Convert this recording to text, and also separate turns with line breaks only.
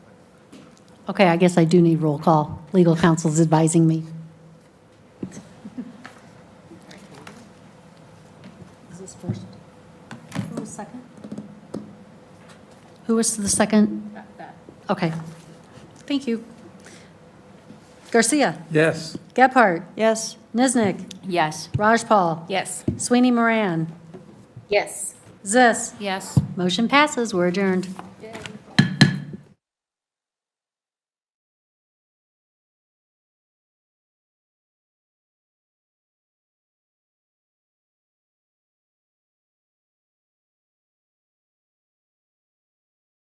Okay, I guess I do need roll call. Legal counsel's advising me. Is this first? Who was second? Who was the second? Okay. Thank you. Garcia,
Yes.
Gephardt,
Yes.
Niznik,
Yes.
Rajpal,
Yes.
Sweeney Moran,
Yes.
Zis.
Yes.
Motion passes. We're adjourned.